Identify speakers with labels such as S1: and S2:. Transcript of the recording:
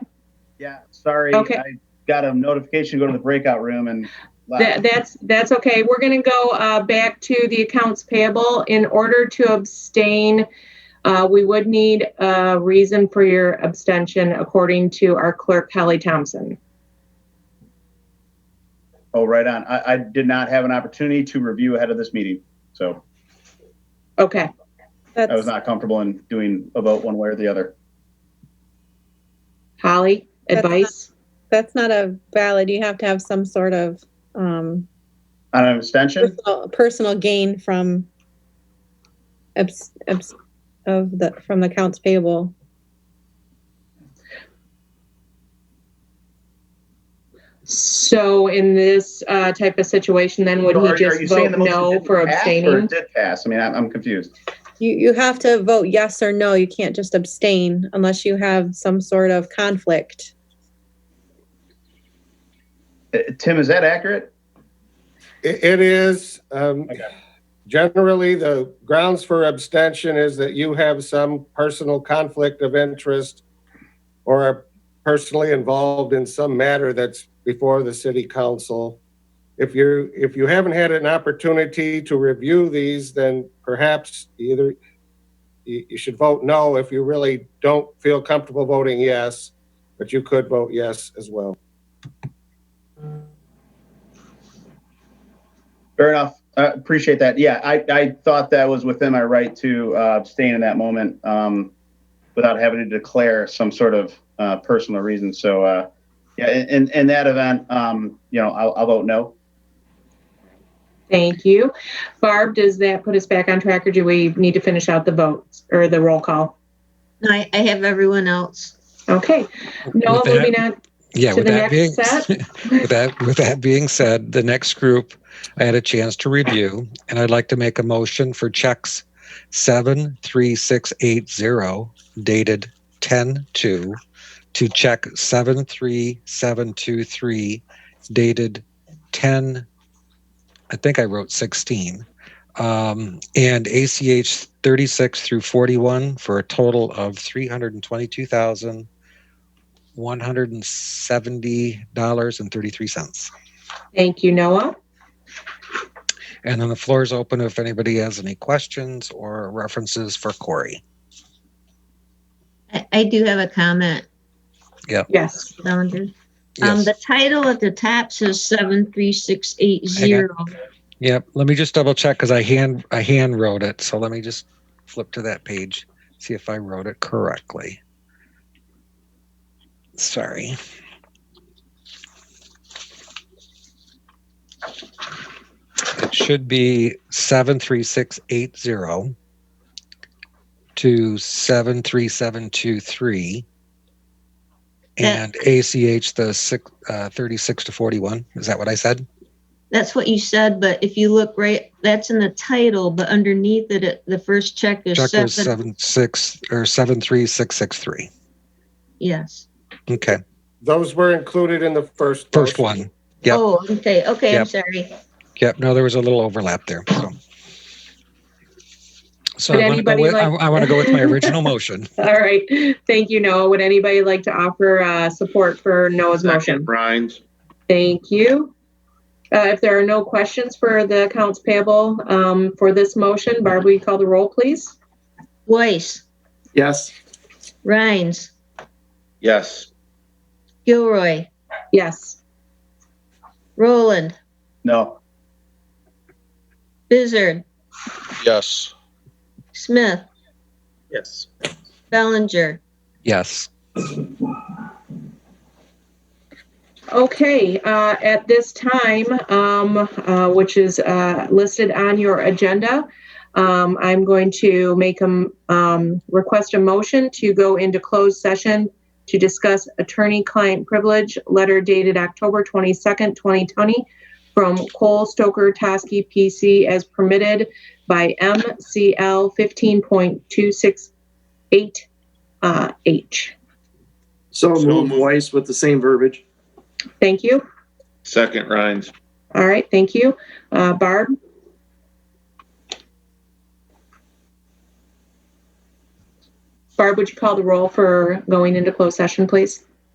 S1: Yeah, sorry.
S2: Okay.
S1: I got a notification to go to the breakout room and.
S2: That, that's, that's okay. We're gonna go, uh, back to the accounts payable. In order to abstain, uh, we would need a reason for your abstention according to our clerk Kelly Thompson.
S1: Oh, right on. I, I did not have an opportunity to review ahead of this meeting, so
S2: Okay,
S1: I was
S3: That's,
S1: not comfortable in doing a vote one way or the other.
S2: Holly,
S3: That's not-
S2: advice?
S3: that's not a valid, you have to have some sort of, um,
S1: On an abstention?
S3: personal, personal gain from abs, abs, of the, from the accounts payable.
S2: So in this, uh, type of situation, then would
S1: So are-
S2: he
S1: are
S2: just
S1: you saying
S2: vote
S1: the motion
S2: no
S1: didn't
S2: for
S1: pass or
S2: abstaining?
S1: it Did pass. I mean, I'm, I'm confused.
S3: You, you have to vote yes or no, you can't just abstain unless you have some sort of conflict.
S1: Uh, Tim, is that accurate?
S4: It it is, um,
S1: Okay.
S4: generally, the grounds for abstention is that you have some personal conflict of interest or are personally involved in some matter that's before the city council. If you, if you haven't had an opportunity to review these, then perhaps either you, you should vote no if you really don't feel comfortable voting yes, but you could vote yes as well.
S1: Fair enough. Uh, appreciate that. Yeah, I, I thought that was within my right to uh, abstain in that moment um, without having to declare some sort of uh, personal reason. So, uh, yeah, in, in, in that event, um, you know, I'll, I'll vote no.
S2: Thank you. Barb, does that put us back on track or do we need to finish out the votes or the roll call?
S5: No, I, I have everyone else.
S2: Okay, Noah,
S6: With that-
S2: moving on.
S6: Yeah,
S2: to
S6: with
S2: the
S6: that being,
S2: next
S6: with that, with that being said, the next group I had a chance to review, and I'd like to make a motion for checks seven, three, six, eight, zero dated ten, two, to check seven, three, seven, two, three dated ten, I think I wrote sixteen, um, and ACH thirty-six through forty-one for a total of three hundred and twenty-two thousand one hundred and seventy dollars and thirty three cents.
S2: Thank you, Noah.
S6: And then the floor is open if anybody has any questions or references for Corey.
S5: I, I do have a comment,
S2: Yes.
S5: Bellinger. Um,
S6: Yes.
S5: the title at the top says seven three six eight zero.
S6: yep. Let me just double check because I hand I hand wrote it. So let me just flip to that page, see if I wrote it correctly. Sorry. It should be seven three six eight zero to seven three seven two three.
S5: Yeah.
S6: And ACH the six, uh, 36 to 41. Is that what I said?
S5: That's what you said, but if you look right, that's in the title, but underneath it, it, the first check is
S6: Check was
S5: seven.
S6: seven six or seven three six six three.
S5: Yes.
S6: Okay,
S4: Those were included in the first.
S6: first
S4: motion.
S6: one. Yep.
S5: Oh, okay. Okay, I'm
S6: Yep.
S5: sorry.
S6: Yep. No, there was a little overlap there. So, so
S2: Would
S6: I want to go
S2: anybody
S6: with, I,
S2: like-
S6: I want to go with my original motion.
S2: All right. Thank you, Noah. Would anybody like to offer uh, support for Noah's motion?
S7: Brines.
S2: Thank you. Uh, If there are no questions for the accounts payable um, for this motion, Barb, will you call the roll, please?
S5: Weiss,
S7: Yes.
S5: Rhines,
S7: Yes.
S5: Gilroy,
S2: Yes.
S5: Roland,
S1: No.
S5: Bizzard,
S7: Yes.
S5: Smith,
S7: Yes.
S5: Bellinger.
S6: Yes.
S2: Okay, uh, at this time, um, uh, which is uh, listed on your agenda, um, I'm going to make a m- um, request a motion to go into closed session to discuss attorney-client privilege, letter dated October 22nd, 2020, from Cole Stoker Toskey PC as permitted by MCL 15.268H. uh,
S8: So
S7: So
S8: moved
S7: moved.
S8: twice with the same verbiage.
S2: Thank you.
S7: Second Rhines.
S2: All right, thank you. Uh, Barb? Barb, would you call the roll for going into closed session, please?